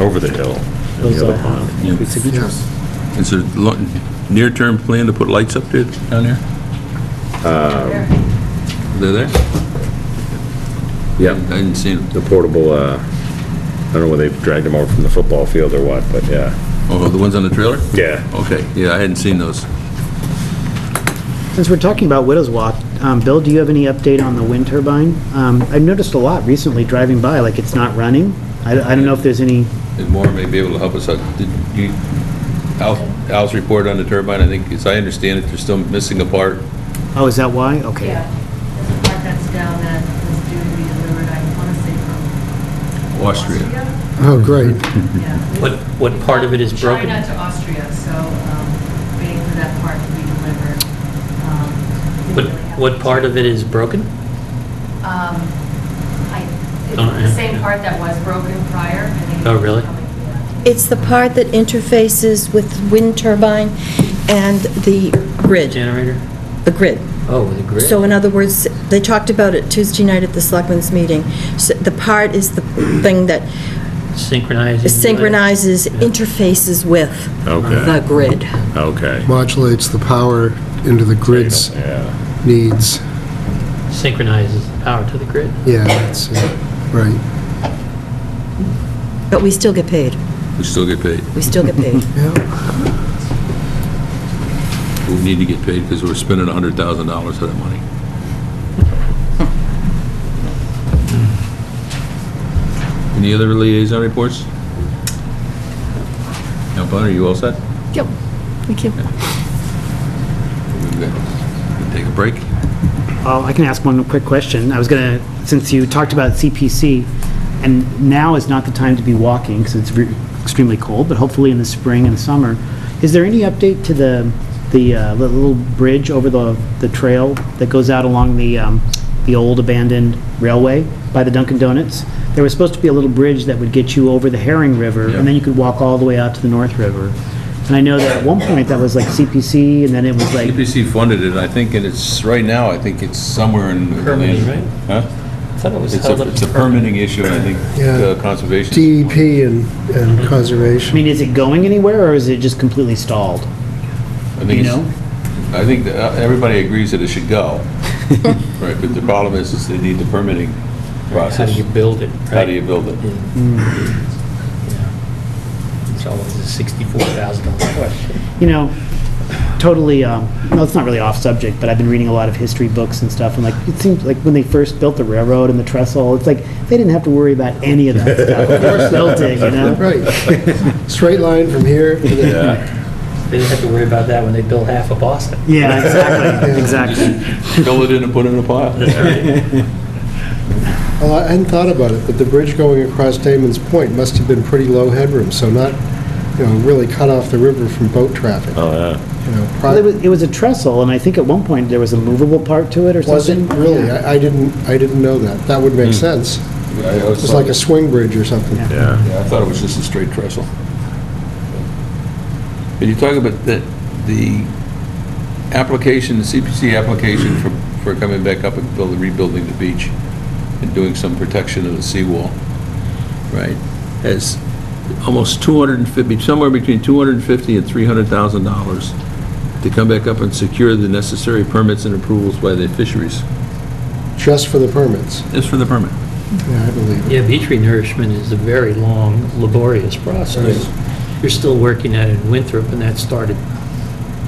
over the hill. and Those the I other pond. have. Pretty significant. Yes. Is there lo- near-term plan to put lights up there, down there? Um, They're there? Yeah, I didn't see them. the portable, uh, I don't know whether they've dragged them over from the football field or what, but yeah. Oh, the ones on the trailer? Yeah. Okay, yeah, I hadn't seen those. Since we're talking about Widows Walk, um, Bill, do you have any update on the wind turbine? Um, I've noticed a lot recently driving by, like it's not running. I I don't know if there's any, And Maura may be able to help us out. Did you, Al, Al's report on the turbine, I think, as I understand it, they're still missing a part. oh, is that why? Okay. Yeah, there's a part that's down that is due to be delivered, I want to say from. Austria. Oh, great. Yeah. What- what part of it is broken? China to Austria, so um, waiting for that part to be delivered. Um, didn't What, really have- what part of it is broken? Um, I, it's Don't the know. same part that was broken prior. I think it's Oh, really? coming, yeah. It's the part that interfaces with wind turbine and the grid, Generator? the grid. Oh, the grid? So in other words, they talked about it Tuesday night at the selectmen's meeting. So The part is the thing that Synchronizing. synchronizes, Yeah. interfaces with the Okay, grid. okay. Modulates the power into the grid's Yeah, needs. Synchronizes the power to the grid. Yeah, that's it. Right. But we still get paid. We still get paid. We still get paid. Yeah. We need to get paid because we're spending $100,000 of that money. Any other liaison reports? Now, Bud, are you all set? Yep, thank you. We've got- we Take a break? Oh, I can ask one quick question. I was going to, since you talked about CPC, and now is not the time to be walking because it's re- extremely cold, but hopefully in the spring and summer, is there any update to the, the uh, li- little bridge over the, the trail that goes out along the, um, the old abandoned railway by the Dunkin' Donuts? There was supposed to be a little bridge that would get you over the Herring River, and then you could walk all the way out to the North River. And I know that at one point that was like CPC, and then it was like CPC funded it, I think, and it's, right now, I think it's somewhere in. Permitting, right? Huh? I thought it was It's held a, up. it's to a permitting issue, and I think, Yeah. uh, conservation. DEP E and, and I conservation. mean, is it going anywhere, or is it just completely stalled? I think you it's- I think that uh, everybody agrees that it should go, right, but the problem is, is they need the permitting How process. do you build it, right? How do you build it? Yeah. Yeah. It's always a sixty-four thousand dollar question. You know, totally, um, no, it's not really off subject, but I've been reading a lot of history books and stuff, and like, it seems like when they first built the railroad and the trestle, it's like, they didn't have to worry about any of that stuff. Of course, built it, you know? Right. Straight line from here to there. They didn't have to worry about that when they built half of Boston. Yeah, exactly, exactly. Fill it in and put it in a pile. Well, I hadn't thought about it, but the bridge going across Damon's Point must have been pretty low headroom, so not, you know, really cut off the river from boat traffic. oh, yeah. You know, Well, pro- it was, it was a trestle, and I think at one point there was a movable part to it or something. Wasn't really, I I didn't, I didn't know that. That would make sense. I always It's thought- like a swing bridge or something. Yeah. Yeah. Yeah, I thought it was just a straight trestle. But you talk about that, the application, the CPC application for, for coming back up and building, rebuilding the beach and doing some protection of the seawall, right, has almost 250, somewhere between 250 and 300,000 dollars to come back up and secure the necessary permits and approvals by the fisheries. Just for the permits. Just for the permit. Yeah, I believe it. Yeah, beach renourishment is a very long, laborious process. You're still working at it in Winthrop, and that started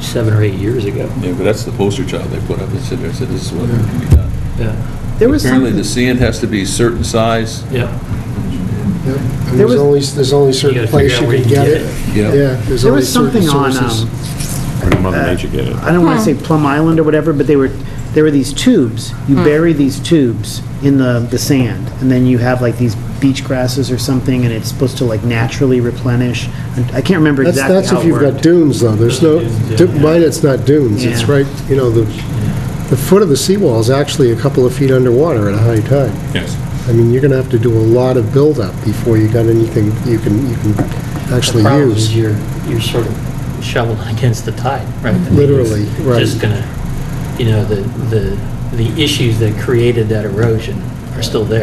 seven or eight years ago. Yeah, but that's the poster child they put up and said, I said, this is what can be done. Yeah, There was Apparently, something, the sand has to be a certain size, yeah. Yep. And There There's was- only, there's only certain gotta place figure out you where can you get can it. get it. Yeah. Yeah, there's there only was certain something on, sources. um, Where did Uh, Mother Nature get it? I don't want to say Plum Island or whatever, but they were, there were these tubes. You bury these tubes in the, the sand, and then you have like these beach grasses or something, and it's supposed to like naturally replenish. And I can't remember That's, exactly that's how if it you've got worked. dunes, though. There's no, Dunes, yeah. du- mine, it's not dunes. It's Yeah. right, you know, the, the foot of the seawall is actually a couple of feet underwater at a high tide. Yes. I mean, you're going to have to do a lot of buildup before you got anything you can, you can The actually problem is use. you're, you're sort of shoveling against the tide, right? I mean, Literally, it's right. Just gonna, you know, the, the, the issues that created that erosion are still there.